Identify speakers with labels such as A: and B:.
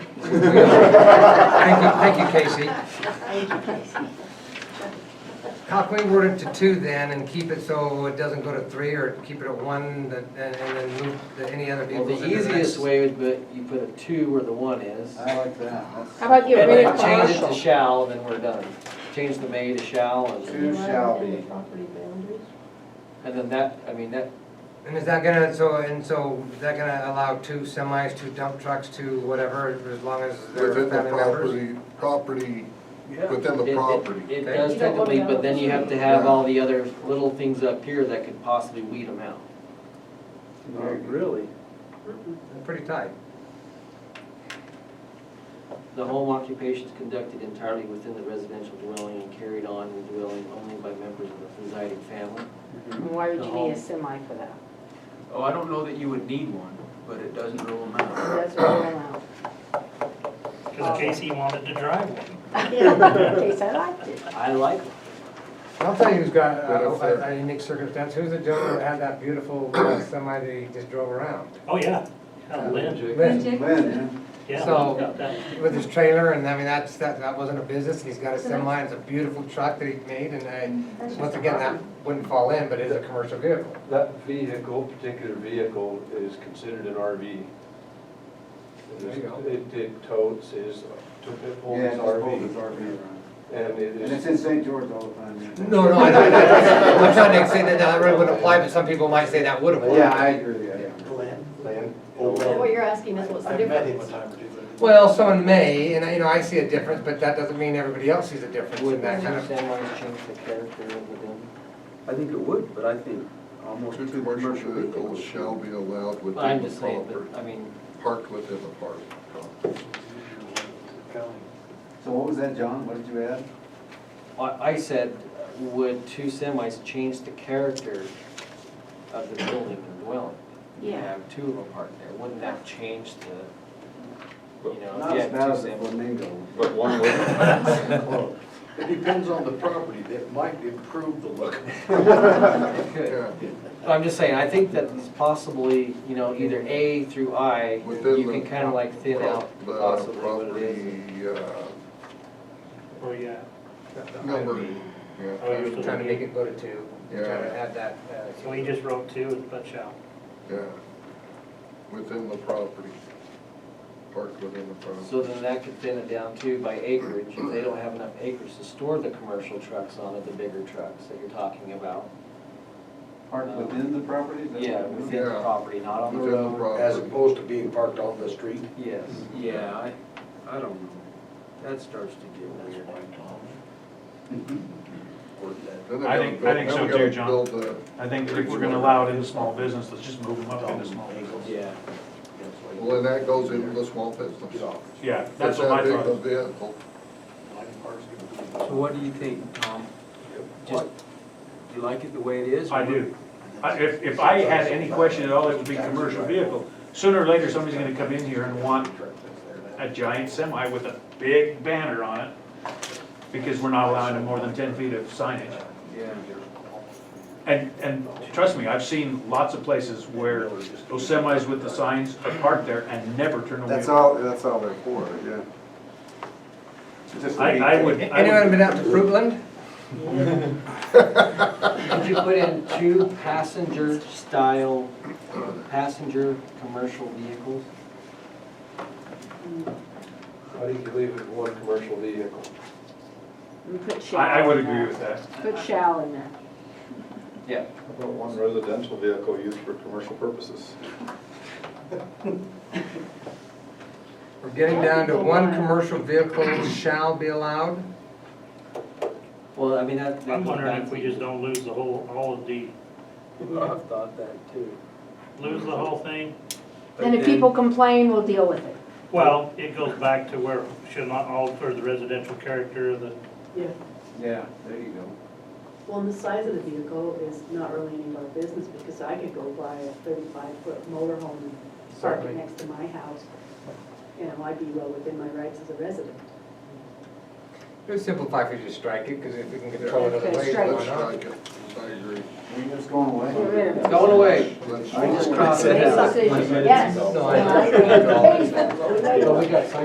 A: Thank you, thank you, Casey.
B: Thank you, Casey.
A: How can we word it to two then and keep it so it doesn't go to three or keep it at one that- and and then move the- any other
C: Well,
A: vehicles?
C: the
A: into next?
C: easiest way would be, you put a two where the one is.
D: I like that.
B: How about get
C: And
B: rid
C: then
B: of
C: change it to
B: commercial?
C: shall, then we're done. Change the may to shall, and,
D: Two shall be.
B: Property boundaries?
C: and then that, I mean, that,
A: And is that gonna, so, and so, is that gonna allow two semis, two dump trucks, two whatever, as long as they're
E: Within the
A: family members?
E: property, property, within
C: it,
E: the
C: it-
E: property.
C: it
A: Okay.
C: does
B: You don't want
C: technically,
B: to
C: but then you have to have
E: Yeah.
C: all the other little things up here that could possibly weed them out.
D: Really?
A: Pretty tight.
C: The home occupation is conducted entirely within the residential dwelling and carried on in the dwelling only by members of the residing family.
B: And Why would
C: The
B: you
C: home.
B: need a semi for that?
F: Oh, I don't know that you would need one, but it doesn't rule them
B: It
F: out.
B: doesn't rule out.
G: Because Casey wanted to drive one.
B: Yeah, Case, I liked it.
C: I like
A: I'll tell you who's got
E: But
A: a-
E: if
A: a
E: they're-
A: a unique circumstance, who's the gentleman that had that beautiful uh, semi that he just drove around?
G: Oh, yeah. Yeah,
A: Lynn,
G: Lynn,
D: Lynn,
G: yeah.
A: So-
G: Lynn's got that.
A: With his trailer, and I mean, that's, that, that wasn't a business, he's got a semi, it's a beautiful truck that he made, and I, once again, that wouldn't fall in, but it is a commercial vehicle.
H: That vehicle, particular vehicle, is considered an RV.
A: There you go.
H: It, it totes his, to- it
D: yeah.
H: holds his
D: just hold his
H: RV.
D: RV around.
H: And it
D: And it's
H: is,
D: in St. George all the time. yeah.
A: No, no, I don't, I'm trying to say that that really wouldn't apply, but some people might say that would apply.
D: Yeah, I agree, yeah, yeah.
H: land,
I: So
H: old
I: what you're asking is Oh, what's the difference?
H: time or two, but-
A: Well, someone may, and you know, I see a difference, but that doesn't mean everybody else sees a difference
C: it.
A: in
C: Would
A: that kind
C: that
A: of.
C: semis change the character of the building?
I: I think it would, but I think almost
E: Two
I: two
E: commercial
I: commercial
E: vehicles
I: vehicles.
E: shall be allowed
C: Well, I'm
E: within the
C: just saying, but, I
E: property,
C: mean,
E: parked within the park.
D: So what was that, John? What did you add?
C: I, I said, would two semis change the character of the building and dwelling? You
B: Yeah.
C: Have two of them parked there, wouldn't that change the, you know, if
D: Not
C: you
D: as
C: had
D: bad as
C: two
D: a
C: semis?
D: flamingo.
E: But one would.
I: It depends on the property, that might improve the look.
C: It could.
E: Yeah,
C: But I'm just saying, I think that it's possibly, you know, either A through I,
E: Within
C: you can
E: the
C: kind of like thin out
E: the
C: possibly what it is.
E: property, uh,
G: Oh, yeah.
E: number, yeah.
G: Oh, you're still-
A: Trying to make it go to two, trying to
E: Yeah.
A: add that. uh,
G: So he just wrote two and put shall.
E: Yeah, within the property, parked within the
C: So
E: property.
C: then that could thin it down too by acreage, if they don't have enough acres to store the commercial trucks on it, the bigger trucks that you're talking about.
D: Parked within the property? is that what
C: Uh, Yeah,
D: it was?
C: within the
E: Yeah.
C: property, not on the
E: Within the
C: road.
I: As
E: property.
I: opposed to being parked on the street.
C: Yes.
F: Yeah, I, I don't know. That starts to get weird.
I: Or that-
E: Then they
J: I
E: gotta
J: think-
E: build-
J: I think
E: then
J: so
E: we gotta
J: too, John.
E: build the-
J: I think if we're gonna allow it in the small business, let's just move them up into small business.
F: Yeah.
E: Well, then that goes into the small business.
I: Get off.
J: Yeah, that's what my
E: If that big a
J: thought.
E: vehicle,
F: So what do you think, Tom? Just, do you like it the way it is?
J: I do. I- If, if I had any question at all, it would be commercial vehicle. Sooner or later, somebody's gonna come in here and want a giant semi with a big banner on it because we're not allowing them more than ten feet of signage.
F: Yeah.
J: And, and trust me, I've seen lots of places where those semis with the signs are parked there and never turn away.
D: That's all, that's all they're for, yeah. Just a
J: I, I
D: weekend.
J: would, I would-
A: Anyone been out to Fruitland?
C: Could you put in two passenger style, passenger commercial vehicles?
H: How do you leave it one commercial vehicle?
B: We put shall.
J: I, I would
B: in
J: agree
B: there.
J: with that.
B: Put shall in there.
C: Yeah.
H: About one residential vehicle used for commercial purposes.
A: We're getting down to one commercial vehicle shall be allowed.
C: Well, I mean, that. that
G: I'm
C: goes
G: wondering
C: back
G: if
C: to-
G: we just don't lose the whole, all of the,
C: I've thought that too.
G: lose the whole thing.
B: Then if people complain, we'll deal with it.
G: Well, it goes back to where should not alter the residential character of the,
K: Yeah,
D: Yeah, there you go.
K: well, and the size of the vehicle is not really any of our business, because I could go buy a thirty-five foot motorhome and park
A: Certainly.
K: it next to my house. You know, I'd be well within my rights as a resident.
A: It would simplify if you just strike it, because if we can control it other ways,
B: Okay,
A: why
B: strike
E: let's
A: not?
E: strike it, I agree.
D: We just going away?
B: Get rid of it.
C: It's going away.
E: Let's-
D: I just
C: crossed it
B: Make
C: out.
B: a decision, yes.
A: No, I-
B: Make a decision.
C: But we got